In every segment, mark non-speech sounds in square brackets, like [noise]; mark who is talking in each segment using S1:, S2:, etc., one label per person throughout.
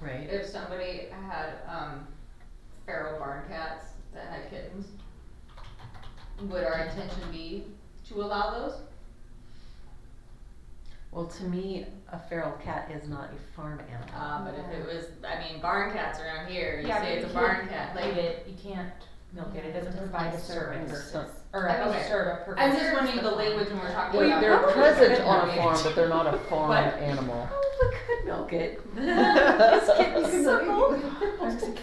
S1: right?
S2: If somebody had, um, feral barn cats that had kittens, would our intention be to allow those?
S1: Well, to me, a feral cat is not a farm animal.
S3: Ah,
S2: Uh, but if it was, I mean, barn cats around here, you
S3: Yeah,
S2: say
S3: but
S2: it's a
S3: you can't
S2: barn cat,
S3: Leave
S2: like,
S3: it, you can't milk it, it doesn't provide a service,
S1: So-
S3: or a
S2: Okay.
S3: serve a purpose.
S2: I'm just wondering the language when we're talking
S1: Well,
S2: about.
S4: They're
S2: barn
S4: present
S2: cats.
S4: on a farm, but
S3: [laughs]
S4: they're not a farm
S2: But-
S4: animal.
S1: Oh, we could milk it. This kitten suckle.
S3: [laughs]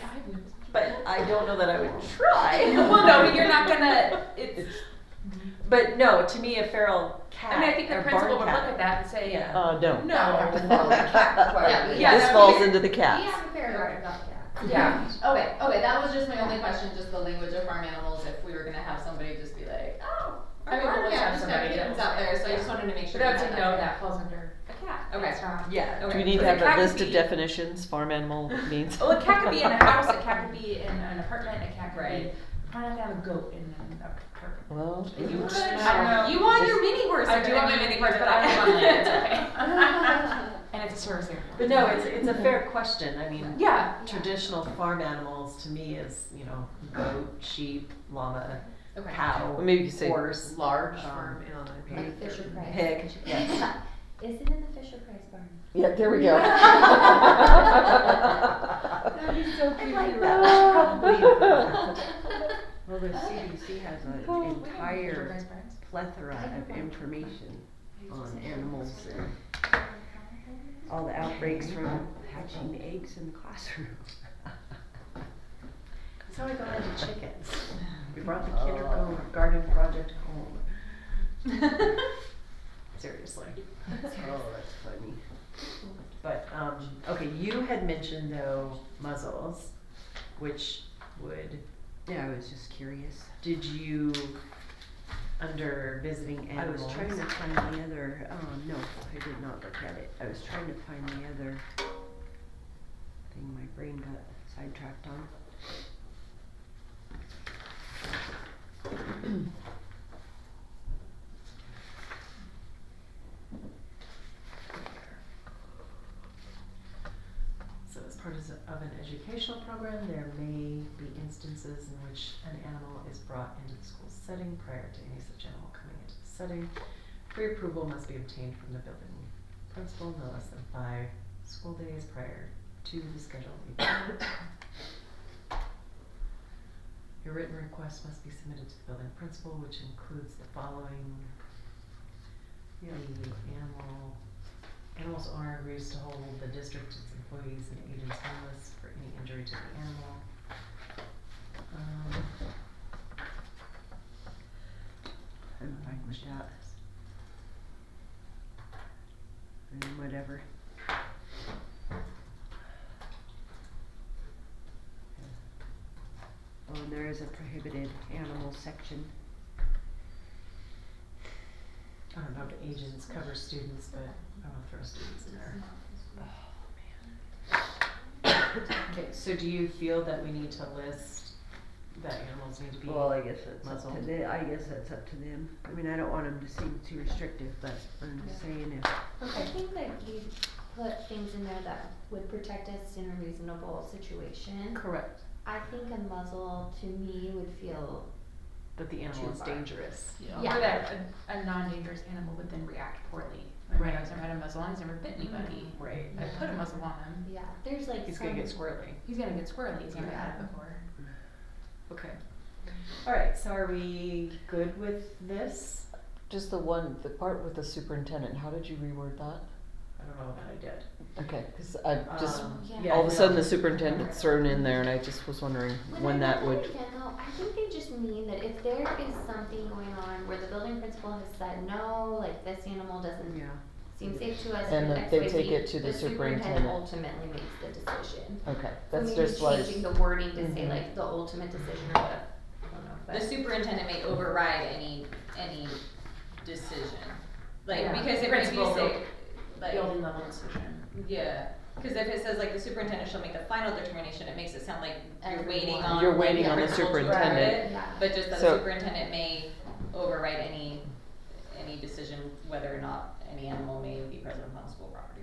S1: But I don't know that I would try.
S3: Well, no, but you're not gonna, it's,
S1: But no, to me, a feral cat.
S3: I mean, I think the
S1: or
S3: principal
S1: barn
S3: would look
S1: cat-
S3: at that and say,
S1: Yeah.
S4: Uh, don't.
S3: no.
S2: Yeah, but-
S3: Yeah,
S4: This
S3: that
S4: falls
S3: would-
S4: into the
S2: We
S4: cats.
S2: have a fair guard about cats.
S3: Yeah.
S2: Okay, okay, that was just my only question, just the language of farm animals, if we were gonna have somebody just be like, oh,
S3: I
S2: a
S3: mean, we'll
S2: barn
S3: just have
S2: cat just got
S3: somebody
S2: kittens
S3: that-
S2: out there, so I just wanted to make sure.
S3: But I
S2: we
S3: would say
S2: had
S3: no,
S2: there.
S3: that falls under a cat,
S2: Okay.
S3: that's not.
S1: Yeah.
S3: Okay.
S4: Do we need to
S3: So
S4: have
S3: the cat
S4: a list
S3: could
S4: of
S3: be-
S4: definitions, farm animal means?
S3: Well, a cat could be
S4: [laughs]
S3: in a house, a cat could be in an apartment, a cat could be,
S2: Right.
S3: why not have a goat in an apartment?
S4: Well,
S2: You
S4: it-
S2: could,
S3: I don't know.
S2: you want your mini horse.
S3: I do want my mini horse, but I don't want land,
S5: [laughs]
S3: it's okay. [laughs] And it's a service animal.
S1: But no, it's, it's a fair question. I mean,
S3: Yeah,
S1: traditional farm animals to me is, you know, goat, sheep, llama,
S2: Okay.
S1: cow,
S4: Well, maybe you could say-
S1: horse.
S6: large
S1: Um,
S6: farm animal.
S1: Like
S6: Beef or-
S5: Fisher Price.
S1: Pig, yes.
S5: Is it in the Fisher Price barn?
S4: yeah, there we
S3: [laughs]
S4: go.
S5: That'd be so cute.
S1: like
S6: Well, the CDC has
S3: Oh, [laughs]
S6: an
S3: we don't need
S6: entire
S3: Fisher Price barns.
S6: plethora of information on animals and all the outbreaks from hatching eggs in the classroom.
S1: So we got into chickens.
S6: We brought the kindergarten project home.
S1: [laughs] Seriously.
S6: Oh, that's funny.
S1: But, um, okay, you had mentioned though muzzles, which would,
S6: Yeah, I was just curious.
S1: did you, under visiting
S6: I was
S1: animals?
S6: trying to find the other, um, no, I did not look at it. I was trying to find the other thing my brain got sidetracked on.
S1: So as part is- of an educational program, there may be instances in which an animal is brought into the school setting prior to any such animal coming into the setting. Pre-approval must be obtained from the building principal no less than five school days prior to the scheduled event. Your written request must be submitted to the building principal, which includes the following. The animal Animals owner agrees to hold the district, its employees, and agents harmless for any injury to the animal. Um,
S6: I'm fine with that. I mean, whatever. Oh, and there is a prohibited animal section.
S1: I don't know if agents cover students, but I don't throw students in there.
S5: Oh,
S1: Okay, so do you feel that we need to list that animals need to be?
S6: Well, I guess that's up to
S1: muzzled.
S6: the, I guess that's up to them. I mean, I don't want them to seem too restrictive, but I'm just saying if,
S5: I think that you put things in there that would protect us in a reasonable situation.
S1: Correct,
S5: I think a muzzle to me would feel,
S1: that the animal
S5: Too
S1: is
S5: far.
S1: dangerous.
S3: Or
S5: Yeah.
S3: that a, a non-dangerous animal would then react poorly. I mean,
S1: Right. Mm-hmm.
S3: I've never had a muzzle on, he's never bit anybody.
S1: Right.
S3: I put a muzzle on him,
S5: yeah, there's like some.
S1: He's gonna get squirrely.
S3: he's gonna get squirrely, he's never had
S1: Yeah.
S3: it before.
S1: Okay. All right, so are we good with this?
S4: Just the one, the part with the superintendent, how did you reword that?
S1: I don't know that I did.
S4: Okay, cause I just,
S1: Um,
S5: Yeah.
S1: yeah,
S4: all of a
S1: no.
S4: sudden the superintendent's thrown in there and I just was wondering when
S5: I
S4: that
S5: look
S4: would.
S5: at it again, though, I think they just mean that if there is something going on where the building principal has said, no, like this animal doesn't
S6: yeah.
S5: seem safe to us.
S4: And
S5: for
S4: that
S5: X,
S4: they
S5: Y,
S4: take
S5: Z,
S4: it to the superintendent.
S5: ultimately makes the decision.
S4: Okay,
S5: So
S4: that's
S5: maybe
S4: just what. I was-
S5: Changing the wording to say
S4: Mhm.
S5: like the ultimate decision or whatever, I don't know, but.
S2: The superintendent may override any, any decision, like,
S3: Yeah.
S2: because if if you
S3: Principal
S2: say,
S3: will-
S2: like.
S3: Building level decision.
S2: Yeah, because if it says like the superintendent shall make the final determination, it makes it sound like you're waiting
S5: Everyone.
S2: on.
S4: You're
S2: like,
S4: waiting
S2: the
S4: on the
S2: principal to approve
S4: superintendent.
S2: it,
S5: Yeah.
S2: But just that
S4: So-
S2: the superintendent may override any, any decision whether or not any animal may be present upon school property.